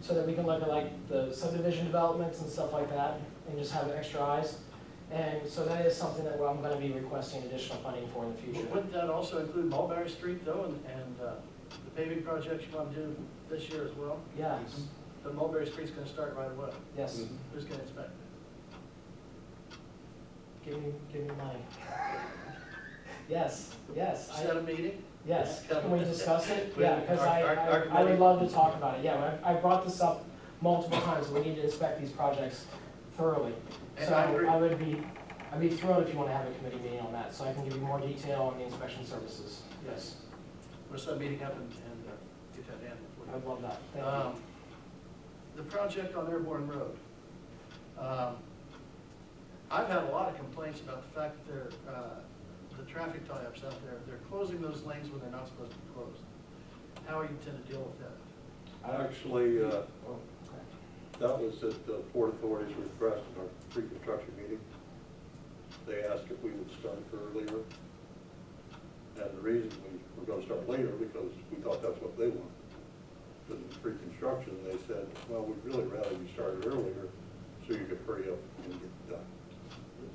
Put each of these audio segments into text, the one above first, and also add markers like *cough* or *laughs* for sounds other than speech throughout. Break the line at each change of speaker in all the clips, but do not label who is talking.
so that we can look at like the subdivision developments and stuff like that, and just have extra eyes. And so that is something that I'm gonna be requesting additional funding for in the future.
Wouldn't that also include Mulberry Street though, and, and uh, the paving projects you want to do this year as well?
Yeah,
But Mulberry Street's gonna start right away.
yes,
Who's gonna inspect it?
give me, give me money. Yes, yes, I-
Set a meeting?
yes, can we discuss it?
We-
Yeah, because I,
our- our- our
I I would
committee-
love to talk about it, yeah, I I brought this up multiple times, we need to inspect these projects thoroughly.
And
So
I agree.
I would be, I'd be thrilled if you wanna have a committee meeting on that, so I can give you more detail on the inspection services.
Yes. We're set a meeting up and, and uh, get that in before you.
I'd love that, thank you.
Um, The project on Airborne Road. Um, I've had a lot of complaints about the fact that they're, uh, the traffic tie-ups out there, they're closing those lanes when they're not supposed to be closed. How are you intend to deal with that?
Actually, uh,
Okay.
that was at the Port Authority's request in our pre-construction meeting. They asked if we would start earlier. And the reason we were gonna start later, because we thought that's what they wanted. But in pre-construction, they said, well, we'd really rather you started earlier, so you could hurry up and get it done.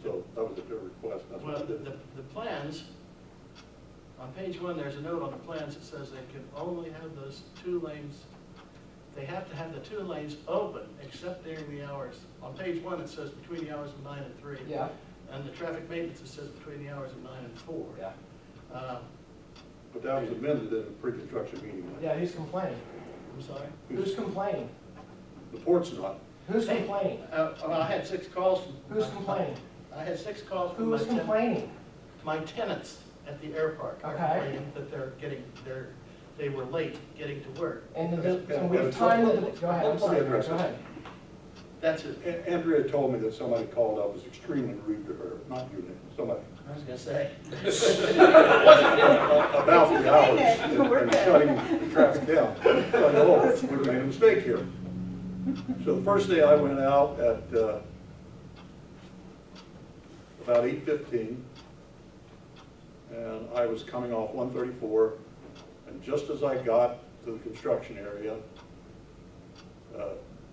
So that was at their request, that's
Well,
what
the,
they did.
the- the plans, on page one, there's a note on the plans that says they can only have those two lanes, they have to have the two lanes open except during the hours. On page one, it says between the hours of nine and three.
Yeah,
And the traffic maintenance, it says between the hours of nine and four.
yeah.
Uh,
But that was amended in the pre-construction meeting.
Yeah, who's complaining?
I'm sorry?
Who's complaining?
The port's not,
Who's
Hey.
complaining?
Uh, well, I had six calls from.
Who's complaining?
I had six calls from my
Who's
tenants.
complaining?
My tenants at the airport are
Okay.
complaining that they're getting, they're, they were late getting to work.
And the,
Okay,
and we've
okay,
timed
so-
the, go ahead, I'm
let's
sorry, go
address this.
ahead.
That's it.
A- Andrea told me that somebody called up, was extremely rude to her, not you, Nick, somebody.
I was gonna say.
about the hours and
We're
and
good.
shutting the traffic down. So I know, oh, we made a mistake here. So the first day I went out at uh, about eight fifteen, and I was coming off one thirty-four, and just as I got to the construction area, uh,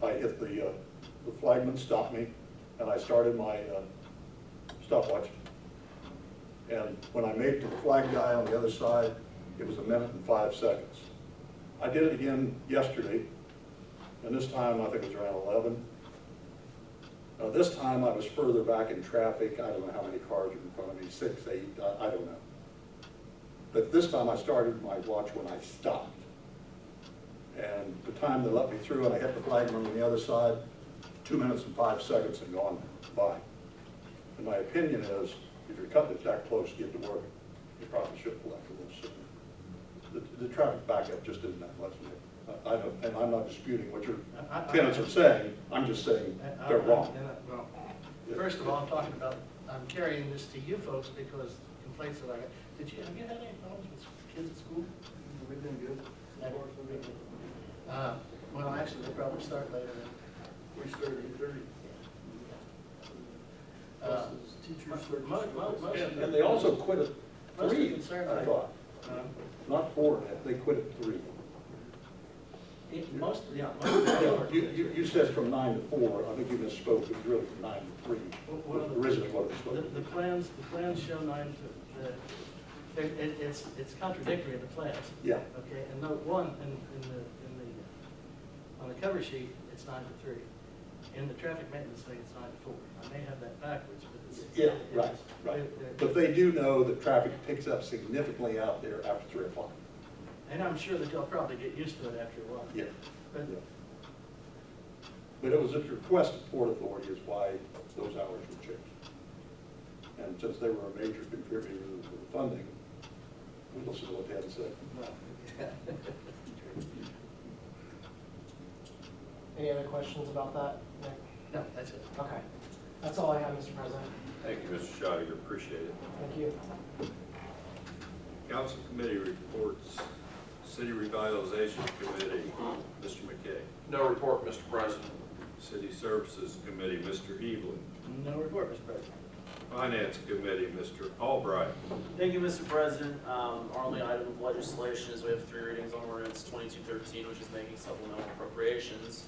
I hit the, uh, the flagman stopped me, and I started my uh, stopwatch. And when I made it to the flag guy on the other side, it was a minute and five seconds. I did it again yesterday, and this time I think it was around eleven. Now, this time I was further back in traffic, I don't know how many cars were in front of me, six, eight, uh, I, I don't know. But this time I started my watch when I stopped. And the time they let me through and I hit the flagman on the other side, two minutes and five seconds had gone by. And my opinion is, if you're cutting it that close to get to work, you probably should pull out a little sooner. The, the traffic backup just isn't that much. I, I don't, and I'm not disputing what your
I- I-
tenants are saying, I'm just saying
I- I-
they're
I'm
wrong.
gonna- well, First of all, I'm talking about, I'm carrying this to you folks because complaints that I got. Did you, have you had any problems with kids at school?
We've been good.
That works Uh, Well, actually, they'll probably start later
We started at thirty.
than. uh,
Buses, Teachers.
mo- mo- mo- most of
And
the-
and they also quit at
Most
three,
concern
I
I-
thought,
um,
not four, they quit at three.
it- Most, yeah, most of the *coughs*
Yeah, You, you, you said from nine to four, I think you misspoke, it was really from nine to three,
Well, well,
originally what it was
The,
supposed to
the
be.
plans, the plans show nine to, the, it, it- it's, it's contradictory in the plans.
Yeah.
Okay, and note one, in, in the, in the, on the cover sheet, it's nine to three. In the traffic maintenance thing, it's nine to four. I may have that backwards, but it's.
Yeah,
it's-
right, right.
it- it-
But they do know that traffic picks up significantly out there after three o'clock.
And I'm sure that they'll probably get used to it after a while.
Yeah.
But,
yeah. But it was at the request of Port Authority is why those hours were changed. And since they were a major contributor to the funding, we listened to what they had to say.
well,
Any other questions about that? Nick?
*laughs* no, that's it.
Okay, that's all I have, Mr. President,
Thank you, Mr. Shire, appreciate it.
thank you.
Council committee reports, City Revitalization Committee, Mr. McKay.
No report, Mr. President.
City Services Committee, Mr. Evelyn.
No report, Mr. President.
Finance Committee, Mr. Albright.
Thank you, Mr. President. Um, Our only item of legislation is we have three readings on ordinance 2213, which is making supplemental appropriations.